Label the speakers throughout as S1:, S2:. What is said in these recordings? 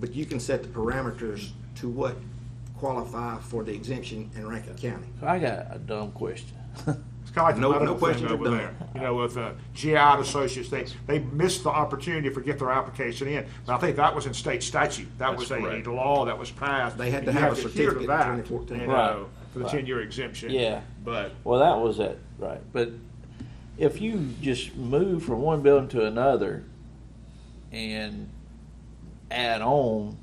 S1: but you can set the parameters to what qualify for the exemption in Rankin County.
S2: I got a dumb question.
S3: It's kind of like
S1: No-
S3: the medical
S1: no questions
S3: thing
S1: are
S3: over
S1: done.
S3: there. You know, with uh, GI and Associates, they they missed the opportunity to get their application in. And I think that was in state statute. That was a,
S4: correct.
S3: a law that was passed.
S1: They had
S3: And
S1: to
S3: you
S1: have a
S3: adhere to
S1: certificate in
S3: that,
S1: 2014.
S3: you
S2: Right.
S3: know, for the
S2: Right.
S3: ten-year exemption.
S2: Yeah.
S4: But
S2: Well, that was it, right? But if you just move from one building to another and add on,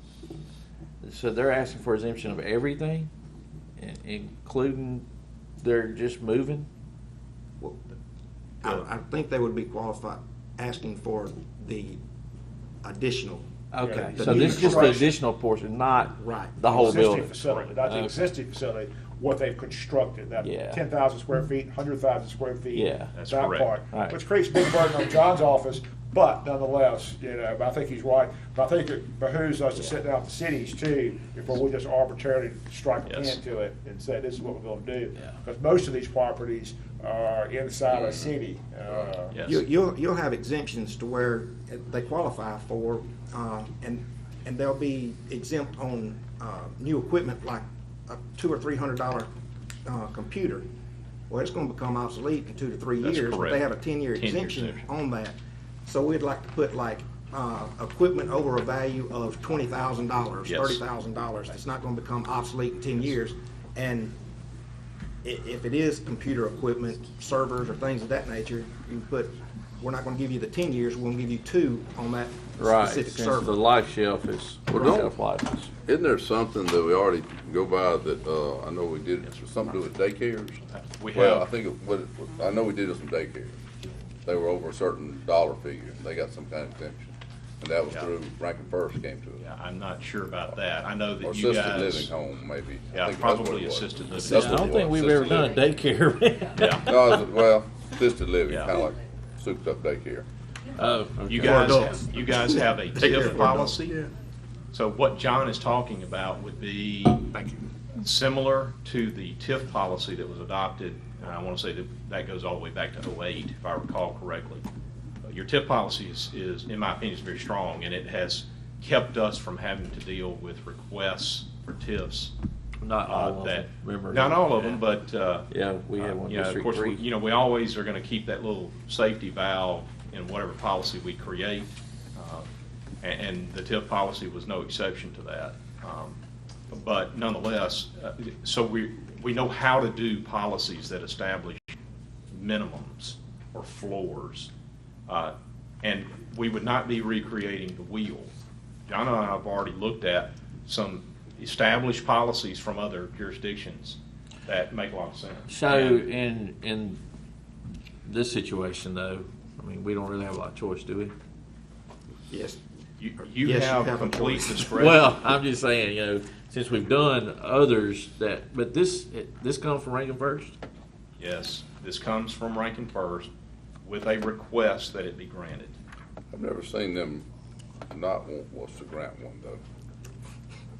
S2: so they're asking for exemption of everything, in- including they're just moving.
S1: Well, I, I think they would be qualified, asking for the additional.
S2: Okay,
S1: The
S2: so this is just the
S3: construction.
S2: additional portion, not
S1: Right.
S2: the whole
S3: existing
S2: building.
S3: facility, not the
S2: Okay.
S3: existing facility, what they've constructed, that
S2: Yeah.
S3: ten thousand square feet, hundred thousand square feet.
S2: Yeah.
S4: That's
S3: that
S4: correct.
S3: part,
S2: Right.
S3: Which creates a big burden on John's office, but nonetheless, you know, I think he's right. But I think it behooves us to sit down with the cities too, before we just arbitrarily strike a
S4: Yes.
S3: pin to it and say, this is what we're gonna do.
S2: Yeah.
S3: Because most of these properties are inside
S4: Mm-hmm.
S3: a city, uh,
S4: yes,
S1: You, you'll, you'll have exemptions to where they qualify for, uh, and, and they'll be exempt on, uh, new equipment like a two or three hundred dollar, uh, computer. Well, it's gonna become obsolete in two to three
S4: That's
S1: years. but They
S4: correct.
S1: have a ten-year
S4: 10-year
S1: exemption
S4: exemption.
S1: on that. So we'd like to put like, uh, equipment over a value of twenty thousand dollars,
S4: Yes.
S1: thirty thousand dollars. It's not gonna become obsolete in ten years. And i- if it is computer equipment, servers or things of that nature, you put, we're not gonna give you the ten years, we're gonna give you two on that
S2: Right,
S1: specific
S2: since
S1: server.
S2: the life shelf is, or
S5: Well,
S2: shelf life is.
S5: Isn't there something that we already go by that, uh, I know we did, something to do with daycares?
S4: Uh, we
S5: Well, I
S4: have.
S5: think, of what, it- I know we did with some daycares. They were over a certain dollar figure, and they got some kind of exemption. And that was
S4: Yeah.
S5: through Rankin First came to
S4: Yeah, I'm not sure about that. I know
S5: it. Or
S4: that you
S5: assisted
S4: guys.
S5: living home, maybe. I
S4: Yeah,
S5: think that's what
S4: probably
S5: it was.
S4: assisted living.
S5: That's
S2: I
S5: what
S2: don't
S5: it
S2: think
S5: was,
S2: we've ever
S5: assisted
S2: done a
S5: living.
S2: daycare.
S4: Yeah,
S5: No, it was- well, assisted living,
S4: Yeah.
S5: kinda like souped up daycare.
S2: Oh,
S4: you
S2: okay.
S4: guys,
S1: adults.
S4: have- you guys have a TIF
S1: adults.
S4: policy. So what John is talking about would be
S3: thank you.
S4: similar to the TIF policy that was adopted, and I want to say that that goes all the way back to '08, if I recall correctly. Uh, Your TIF policy is, is, in my opinion, is very strong, and it has kept us from having to deal with requests for TIFs.
S2: Not
S4: uh,
S2: all of
S4: that-
S2: them, remember?
S4: Not all of them,
S2: Yeah.
S4: but, uh,
S2: Yeah, we had
S4: uh,
S2: one
S4: you know,
S2: district
S4: Of course, we-
S2: three.
S4: you know, we always are going to keep that little safety valve in whatever policy we create, uh, and, and the TIF policy was no exception to that. Um, But nonetheless, uh, so we, we know how to do policies that establish minimums or floors. Uh, And we would not be recreating the wheel. John and I have already looked at some established policies from other jurisdictions that make a lot of sense.
S2: So in in this situation though, I mean, we don't really have a lot of choice, do we?
S1: Yes,
S4: You, you
S1: Yes, you
S4: have
S1: have a
S4: complete
S1: choice.
S4: discretion.
S2: Well, I'm just saying, you know, since we've done others that, but this this comes from Rankin First.
S4: Yes, this comes from Rankin First with a request that it be granted.
S5: I've never seen them not want us to grant one, though.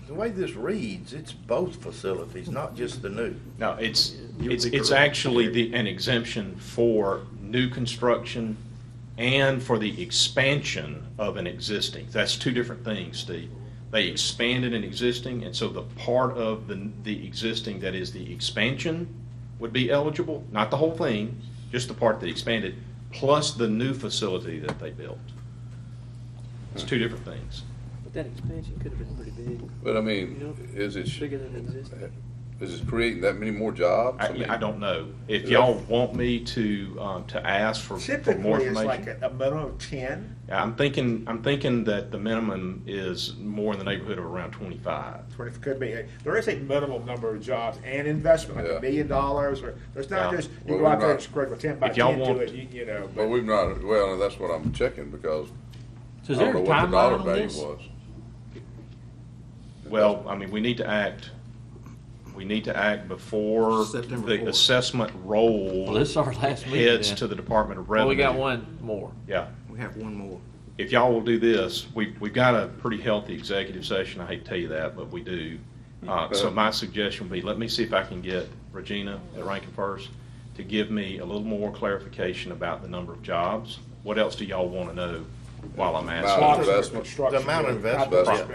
S6: The way this reads, it's both facilities, not just the new.
S4: No, it's,
S1: You would
S4: it's,
S1: be
S4: it's
S1: correct.
S4: actually the, an exemption for new construction and for the expansion of an existing. That's two different things, Steve. They expanded an existing, and so the part of the, the existing that is the expansion would be eligible, not the whole thing, just the part that expanded, plus the new facility that they built. It's two different things.
S7: But that expansion could have been pretty big,
S5: But I
S7: You know,
S5: mean, is it,
S7: bigger than existing.
S5: is it creating that many more jobs?
S4: I,
S5: mean-
S4: I don't know. If y'all want me to, um, to ask for, for more
S3: Typically, it's like
S4: information.
S3: a a minimum of ten.
S4: I'm thinking, I'm thinking that the minimum is more in the neighborhood of around twenty-five.
S3: Twenty could be. There is a minimum number of jobs and investment, like
S5: Yeah.
S3: a million dollars, or there's not
S4: Yeah.
S3: just you
S5: Well,
S3: go out
S5: we're
S3: there
S5: not-
S3: and spread with ten by
S4: If y'all
S3: ten to
S4: want-
S3: it, you, you know.
S5: But we've not, well, that's what I'm checking because
S2: So
S5: I
S2: is
S5: don't
S2: there
S5: know
S2: a
S5: what the dollar
S2: timeline on
S5: value
S2: this?
S5: was.
S4: Well, I mean, we need to act, we need to act before
S1: September
S4: the
S1: fourth.
S4: assessment roll.
S2: Well, this is our last meeting
S4: Heads
S2: then.
S4: to the Department of
S2: Well,
S4: Revenue.
S2: we got one more.
S4: Yeah.
S1: we have one more.
S4: if y'all will do this, we, we've got a pretty healthy executive session, I hate to tell you that, but we do. Uh, so my suggestion would be, let me see if I can get Regina at Rankin First to give me a little more clarification about the number of jobs. What else do y'all want to know while I'm
S5: Lots
S4: asking?
S5: of investment.
S6: The amount of investment.
S5: Investment.